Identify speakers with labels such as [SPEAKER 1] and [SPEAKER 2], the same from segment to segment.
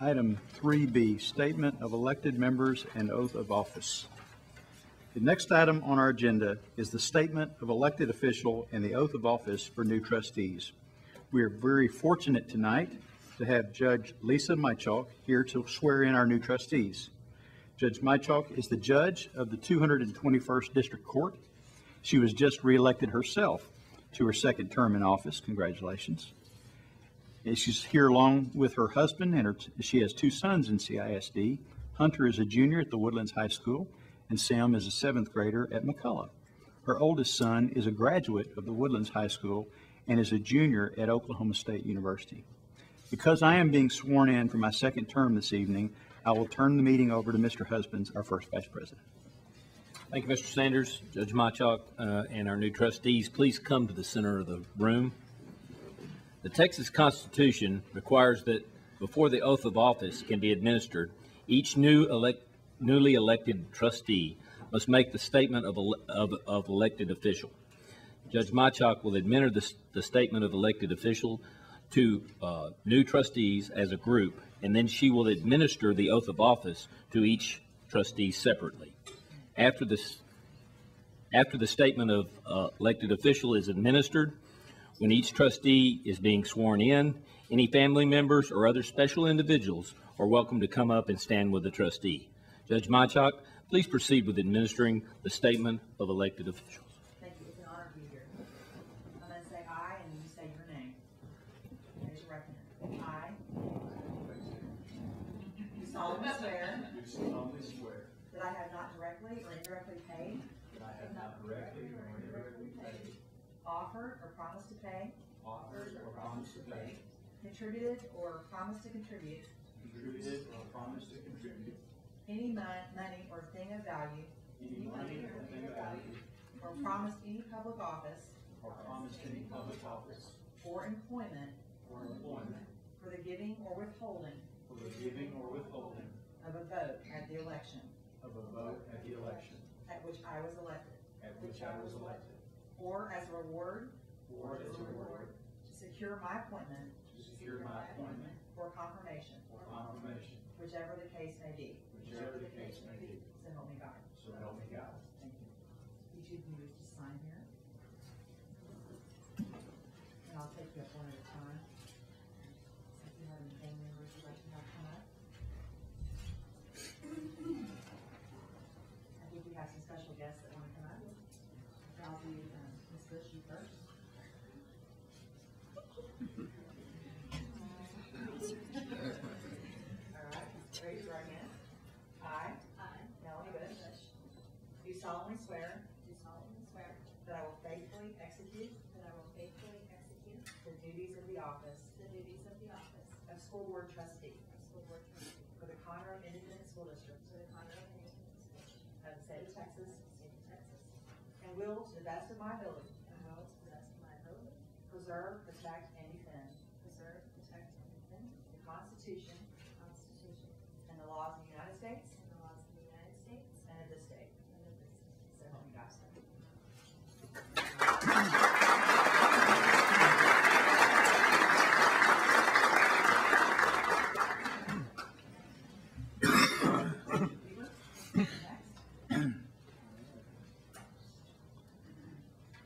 [SPEAKER 1] Item 3B, Statement of Elected Members and Oath of Office. The next item on our agenda is the Statement of Elected Official and the Oath of Office for new trustees. We are very fortunate tonight to have Judge Lisa Mychalk here to swear in our new trustees. Judge Mychalk is the judge of the 221st District Court. She was just reelected herself to her second term in office. Congratulations. And she's here along with her husband, and her, she has two sons in CISD. Hunter is a junior at the Woodlands High School, and Sam is a seventh grader at McCullough. Her oldest son is a graduate of the Woodlands High School and is a junior at Oklahoma State University. Because I am being sworn in for my second term this evening, I will turn the meeting over to Mr. Husbands, our first vice president.
[SPEAKER 2] Thank you, Mr. Sanders, Judge Mychalk, uh, and our new trustees. Please come to the center of the room. The Texas Constitution requires that before the oath of office can be administered, each new elect, newly elected trustee must make the statement of, ele- of, of elected official. Judge Mychalk will administer the, s- the statement of elected official to uh, new trustees as a group, and then she will administer the oath of office to each trustee separately. After this, after the statement of uh, elected official is administered, when each trustee is being sworn in, any family members or other special individuals are welcome to come up and stand with the trustee. Judge Mychalk, please proceed with administering the statement of elected officials.
[SPEAKER 3] Thank you. It's an honor to be here. I'm going to say aye and you say your name. Raise your right hand. I do solemnly swear
[SPEAKER 4] Do solemnly swear
[SPEAKER 3] that I have not directly or indirectly paid,
[SPEAKER 4] that I have not directly or indirectly paid,
[SPEAKER 3] offered, or promised to pay,
[SPEAKER 4] offered, or promised to pay,
[SPEAKER 3] contributed, or promised to contribute
[SPEAKER 4] contributed, or promised to contribute
[SPEAKER 3] any mon- money or thing of value,
[SPEAKER 4] any money or thing of value,
[SPEAKER 3] or promised any public office
[SPEAKER 4] or promised any public office
[SPEAKER 3] or employment
[SPEAKER 4] or employment
[SPEAKER 3] for the giving or withholding
[SPEAKER 4] for the giving or withholding
[SPEAKER 3] of a vote at the election
[SPEAKER 4] of a vote at the election
[SPEAKER 3] at which I was elected,
[SPEAKER 4] at which I was elected,
[SPEAKER 3] or as a reward
[SPEAKER 4] or as a reward
[SPEAKER 3] to secure my appointment
[SPEAKER 4] to secure my appointment
[SPEAKER 3] or confirmation,
[SPEAKER 4] or confirmation,
[SPEAKER 3] whichever the case may be.
[SPEAKER 4] whichever the case may be,
[SPEAKER 3] So help me God.
[SPEAKER 4] so help me God.
[SPEAKER 3] Thank you. Each of you is to sign here. And I'll take you up one at a time. So If you have any family members you'd like to have come up. I think we have some special guests that want to come up. I'll be, um, Ms. Bush, you first. All right, raise your right hand. I. I. Melanie Bush. Do solemnly swear
[SPEAKER 5] Do solemnly swear
[SPEAKER 3] that I will faithfully execute
[SPEAKER 5] that I will faithfully execute
[SPEAKER 3] the duties of the office
[SPEAKER 5] the duties of the office of
[SPEAKER 3] of school board trustee
[SPEAKER 5] school board trustee
[SPEAKER 3] for the Conroe Independent School District
[SPEAKER 5] for the Conroe Independent School District
[SPEAKER 3] of the state of Texas,
[SPEAKER 5] State of Texas,
[SPEAKER 3] and will, to the best of my ability,
[SPEAKER 5] and will to the best of my ability
[SPEAKER 3] preserve, protect, and defend
[SPEAKER 5] preserve, protect, and defend
[SPEAKER 3] the Constitution
[SPEAKER 5] the Constitution
[SPEAKER 3] and the laws of the United States
[SPEAKER 5] and the laws of the United States
[SPEAKER 3] and of this state.
[SPEAKER 5] and of this state.
[SPEAKER 3] So help me God.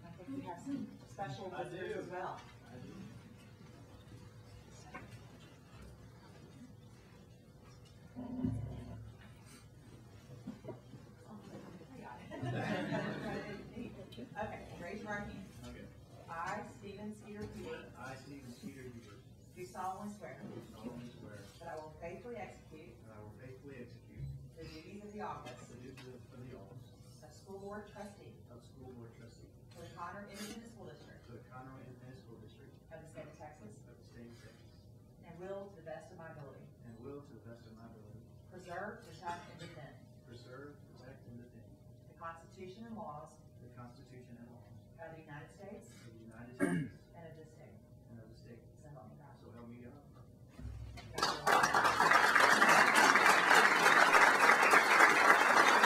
[SPEAKER 3] I think we have some special visitors as well. Okay, raise your right hand. I, Stephen Skeeter Peter,
[SPEAKER 4] I, Stephen Peter Hubert,
[SPEAKER 3] do solemnly swear
[SPEAKER 4] do solemnly swear
[SPEAKER 3] that I will faithfully execute
[SPEAKER 4] that I will faithfully execute
[SPEAKER 3] the duties of the office
[SPEAKER 4] the duties of the office
[SPEAKER 3] of school board trustee
[SPEAKER 4] of school board trustee
[SPEAKER 3] for the Conroe Independent School District
[SPEAKER 4] to the Conroe Independent School District
[SPEAKER 3] of the state of Texas,
[SPEAKER 4] of the state of Texas,
[SPEAKER 3] and will, to the best of my ability,
[SPEAKER 4] and will to the best of my ability
[SPEAKER 3] preserve, protect, and defend
[SPEAKER 4] preserve, protect, and defend
[SPEAKER 3] the Constitution and laws
[SPEAKER 4] the Constitution and laws
[SPEAKER 3] of the United States
[SPEAKER 4] of the United States